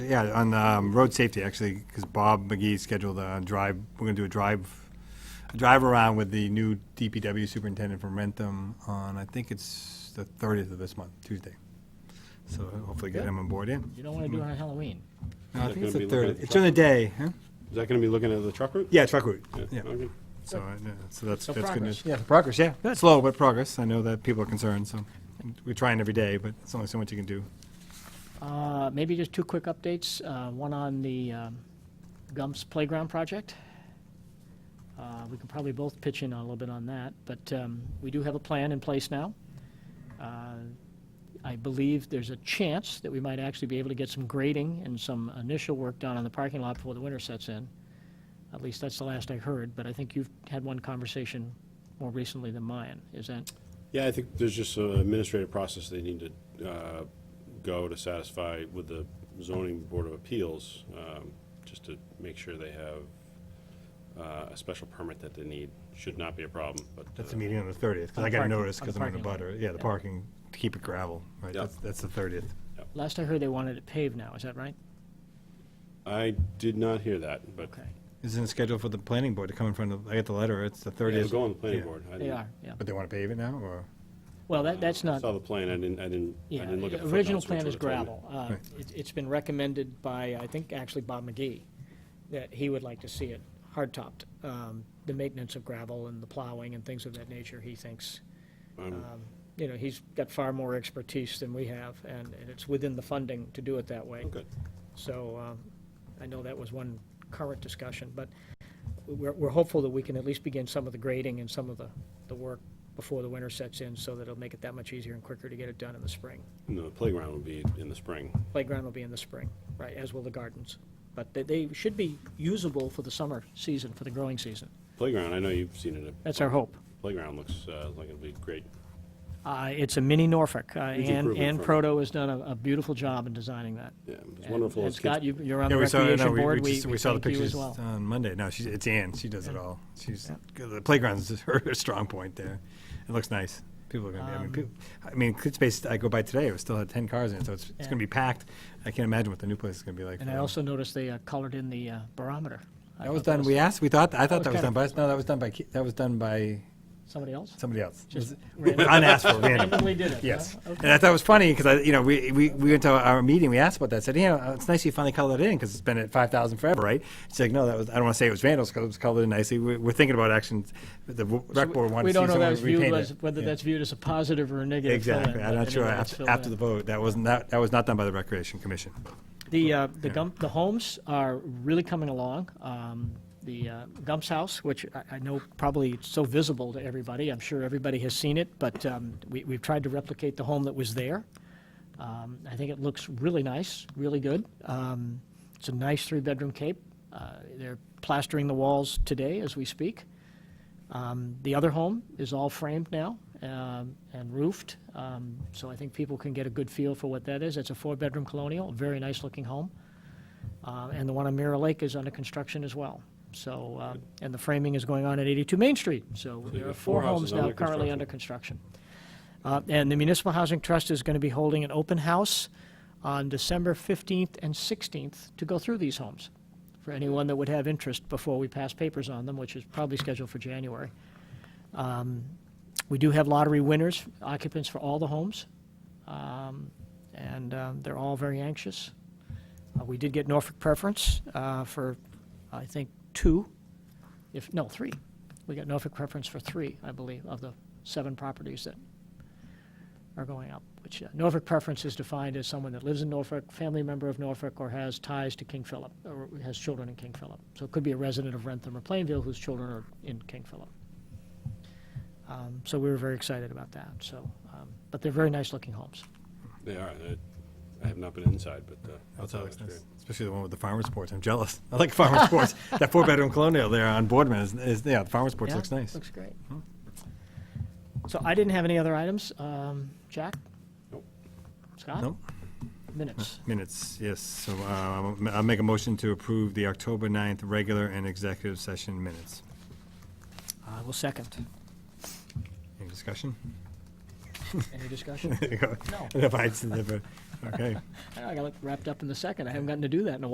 Yeah, on um, road safety, actually, because Bob McGee scheduled a drive, we're going to do a drive, a drive around with the new DPW superintendent from Rentham on, I think it's the 30th of this month, Tuesday. So hopefully get him on board in. You don't want to do it on Halloween. No, I think it's the Is that gonna be looking 30th. at the It's on a day, huh? Is that going to be looking at the truck route? Yeah, truck route, yeah. Okay. So, uh, yeah, so that's, that's So good progress. news. Yeah, progress, yeah. Slow, but progress. I know that people are concerned, so we're trying every day, but it's only so much you can do. Uh, Maybe just two quick updates, uh, one on the um, Gumps Playground project. Uh, We can probably both pitch in a little bit on that, but um, we do have a plan in place now. Uh, I believe there's a chance that we might actually be able to get some grading and some initial work done on the parking lot before the winter sets in. At least that's the last I heard, but I think you've had one conversation more recently than mine, is that? Yeah, I think there's just an administrative process they need to uh, go to satisfy with the zoning board of appeals, um, just to make sure they have uh, a special permit that they need. Should not be a problem, but. That's uh, the meeting on the 30th, because On I got a parking- notice, on because I'm in the parking lot. butter. Yeah, the Yeah. parking, to keep it gravel, right? Yeah. That's, that's the 30th. Last I heard, they wanted it paved now, is that right? I did not hear that, but Okay. Isn't it scheduled for the planning board to come in front of, I got the letter, it's the it 30th. was going to the planning Yeah. board. I They didn't- are, yeah. But they want to pave it now, or? Well, that, that's I not, Saw the plan, I didn't, I didn't, I yeah, didn't look at the the original footnotes, which plan is would've told me. gravel. Uh, it- It's been recommended by, I think, actually Bob McGee, that he would like to see it hardtopped. Um, The maintenance of gravel and the plowing and things of that nature, he thinks, I'm- um, you know, he's got far more expertise than we have, and and it's within the funding to do it that way. Oh, Good. So um, I know that was one current discussion, but we're we're hopeful that we can at least begin some of the grading and some of the, the work before the winter sets in, so that it'll make it that much easier and quicker to get it done in the spring. No, The playground will be in the spring. Playground will be in the spring, right, as will the gardens. But they, they should be usable for the summer season, for the growing season. Playground, I know you've seen it. That's our hope. Playground looks uh, like it'll be great. Uh, It's a mini Norfolk. Uh, Ann, improvement Ann from- Proto has done a, a beautiful job in designing that. Yeah, it was And- wonderful. And as kids- Scott, you- you're on the Yeah, we saw- no, recreation we- we board. just- We saw the thank you as pictures well. on Monday. No, she's, it's Ann, she does it all. She's, Yeah. the playground's her strong point there. It looks nice. People are gonna be, I Um, mean, people, I mean, Clit Space, I go by today, it was still had 10 cars in it, so it's, it's Yeah. gonna be packed. I can't imagine what the new place is gonna be like. And for I them. also noticed they uh, colored in the uh, barometer. I That was thought done, we asked, we thought, I thought was that was kind done of- by us. No, that was done by, Ki- that was done by Somebody else? somebody else. Just It was random- Unasked for, random. Randomly did it? huh? Yes. Okay. And I thought it was funny because I, you know, we, we, we went to our meeting, we asked about that, said, you know, it's nice you finally colored it in because it's been at five thousand forever, right? She's like, no, that was, I don't want to say it was vandals because it was colored in nicely. We're, we're thinking about actions, the w- So rec board wanted we- to see We don't know someone that's viewed repaint as, it. whether Yeah. that's viewed as a positive or a negative fill-in. Exactly. I'm but not sure anyway, it's after, filled after in. the vote, that wasn't, that, that was not done by the Recreation Commission. The, uh, the Gump, the homes are really coming along. Um, The uh, Gump's house, which I, I know probably it's so visible to everybody, I'm sure everybody has seen it, but um, we, we've tried to replicate the home that was there. Um, I think it looks really nice, really good. Um, It's a nice three-bedroom cape. Uh, They're plastering the walls today as we speak. Um, The other home is all framed now um, and roofed, um, so I think people can get a good feel for what that is. It's a four-bedroom colonial, a very nice-looking home. Uh, And the one on Mirror Lake is under construction as well. So, uh, and the framing is going on at 82 Main Street, so there are got four four homes houses now under currently construction. under construction. Uh, And the Municipal Housing Trust is going to be holding an open house on December 15th and 16th to go through these homes for anyone that would have interest before we pass papers on them, which is probably scheduled for January. Um, We do have lottery winners, occupants for all the homes, um, and um, they're all very anxious. Uh, We did get Norfolk preference uh, for, I think, two, if, no, three. We got Norfolk preference for three, I believe, of the seven properties that are going up, which uh, Norfolk preference is defined as someone that lives in Norfolk, family member of Norfolk, or has ties to King Philip, or has children in King Philip. So it could be a resident of Rentham or Plainville whose children are in King Philip. Um, So we were very excited about that, so, um, but they're very nice-looking homes. They are. I- I have not been inside, but uh, outside looks Outside looks great. nice, Especially the one with the farmer sports. I'm jealous. I like farmer sports. That four-bedroom colonial there on Boardman is, is, yeah, the farmer sports Yeah, looks nice. Hmm. Looks great. So I didn't have any other items. Um, Jack? Nope. Scott? Nope. Minutes. Minutes, yes. So uh, I'll ma- I'll make a motion to approve the October 9th regular and executive session minutes. I will second. Any discussion? Any discussion? There you go. No. If I- Okay. I got wrapped up in the second. I haven't gotten to do that in a while.